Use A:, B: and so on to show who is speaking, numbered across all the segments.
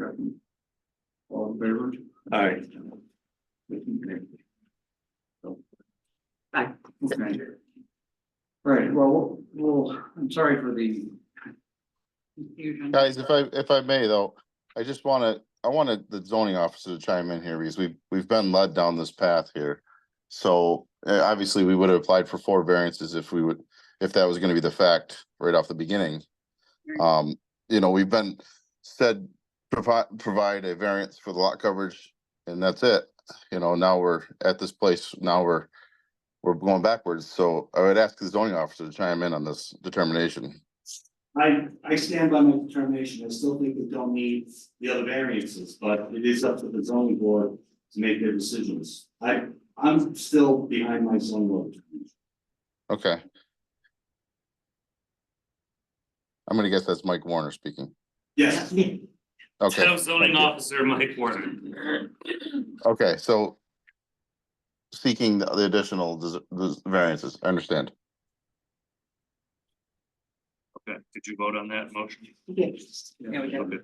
A: Second. All in favor? Aye.
B: Aye.
A: Okay. Right, well, well, I'm sorry for the.
B: confusion.
C: Guys, if I, if I may though, I just wanna, I wanted the zoning officer to chime in here because we've, we've been led down this path here. So, uh, obviously, we would have applied for four variances if we would, if that was gonna be the fact right off the beginning. Um, you know, we've been said, provide, provide a variance for the lot coverage and that's it. You know, now we're at this place, now we're, we're going backwards. So I would ask the zoning officer to chime in on this determination.
D: I, I stand by my determination, I still think we don't need the other variances, but it is up to the zoning board to make their decisions. I, I'm still behind my zoning law.
C: Okay. I'm gonna guess that's Mike Warner speaking.
D: Yes,
C: Okay,
E: zoning
C: you.
E: officer Mike Warner.
C: okay, so. Seeking the the additional dis- dis- variances, I understand.
E: Okay, did you vote on that motion?
B: Yes. Yeah, we did.
E: Okay.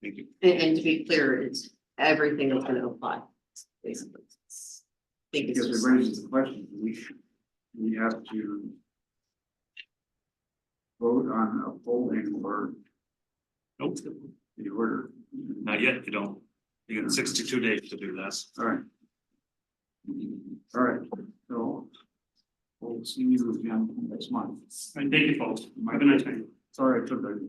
E: Thank you.
B: And, and to be clear, it's everything that's gonna apply, basically. I think it's
A: Because
B: just-
A: it raises the question, we should, we have to. Vote on upholding or
E: Nope,
A: the order.
E: not yet, you don't. You got sixty-two days to do this.
A: All right. All right, so. We'll see you again next month.
E: And thank you, folks.
A: Have a nice night. Sorry, I took that.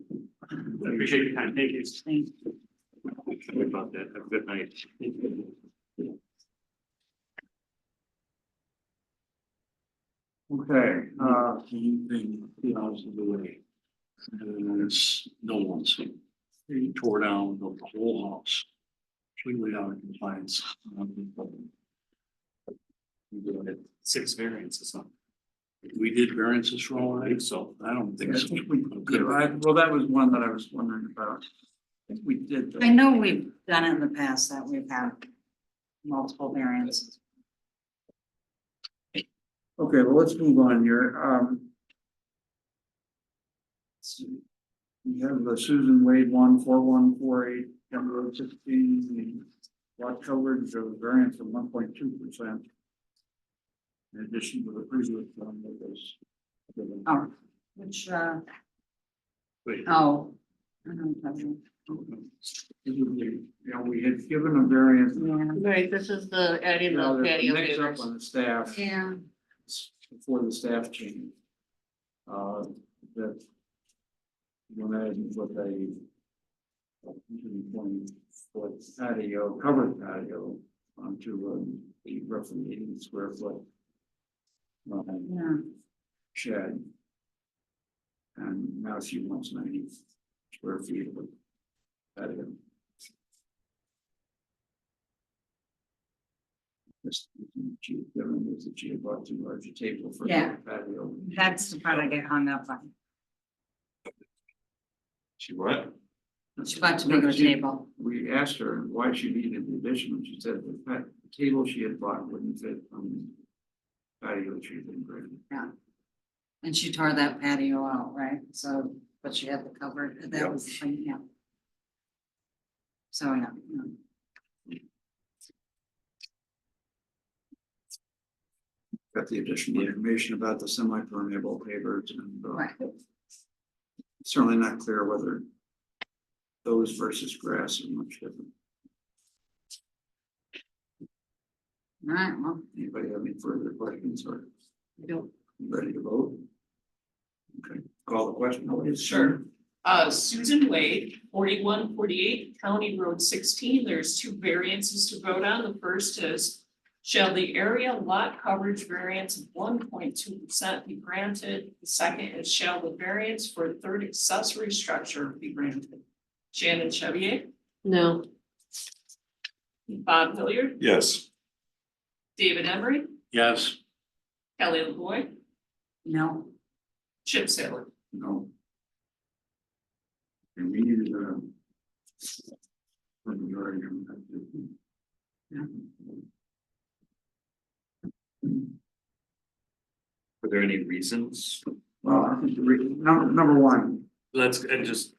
E: Appreciate your time. Thank you. Sorry About that. Have a good night.
A: Okay, uh. Anything, you know, is the way. And it's no one's. He tore down the whole house. Completely out of compliance.
E: You're doing it. Six variances, huh?
F: We did variances for all
E: I
F: that,
E: think so.
F: I don't
A: Yeah,
F: think so.
A: I, well, that was one that I was wondering about. I think We did. the-
G: I know we've done it in the past that we've had multiple variants.
A: Okay, well, let's move on here, um. let's see. We have the Susan Wade one four one four eight, number of sixteen, the lot coverage of variance of one point two percent. In addition to the previous one that was.
G: Oh, which, uh,
E: Wait.
G: oh. I don't know.
A: You know, we had given a variance.
G: Yeah.
B: Right, this is the adding
A: Now,
B: the
A: there's a
B: patio
A: Mix
B: favors.
A: up on the staff.
G: Yeah.
A: before the staff change. Uh, that. You imagine what they. a usually point foot patio, covered patio onto a roughly eighty square foot. um,
G: Yeah,
A: shed. And now she wants ninety square feet of patio. This, she, given was that she had bought too large a table for the
G: Yeah.
A: patio.
G: that's the part I get hung up on.
D: she what?
G: She bought too
A: No,
G: big of a
A: she-
G: table.
A: We asked her why she needed the addition, and she said the pa- the table she had bought wouldn't fit on the patio she had been granted.
G: And she tore that patio out, right? So, but she had the cover, that was, the thing, yeah. So, yeah, yeah.
A: Got the additional information about the semi-permeable pavers and uh,
G: right,
A: certainly not clear whether those versus grass are much different.
G: right, well,
A: Anybody have any further questions or
B: I don't-
A: ready to vote? Okay, call the question. please.
H: Sure. Uh, Susan Wade, forty-one forty-eight County Road sixteen, there's two variances to vote on. The first is. Shall the area lot coverage variance of one point two percent be granted? The second is shall the variance for a third accessory structure be granted? Shannon Chevy,
B: No,
H: Bob Hilliard,
D: Yes.
H: David Emery,
F: Yes,
H: Kelly LaVoy,
G: no,
H: Chip Saylor.
A: No. And we needed a. a majority of them.
E: Were there any reasons?
A: Well, I think the re- number, number one,
E: Let's, and just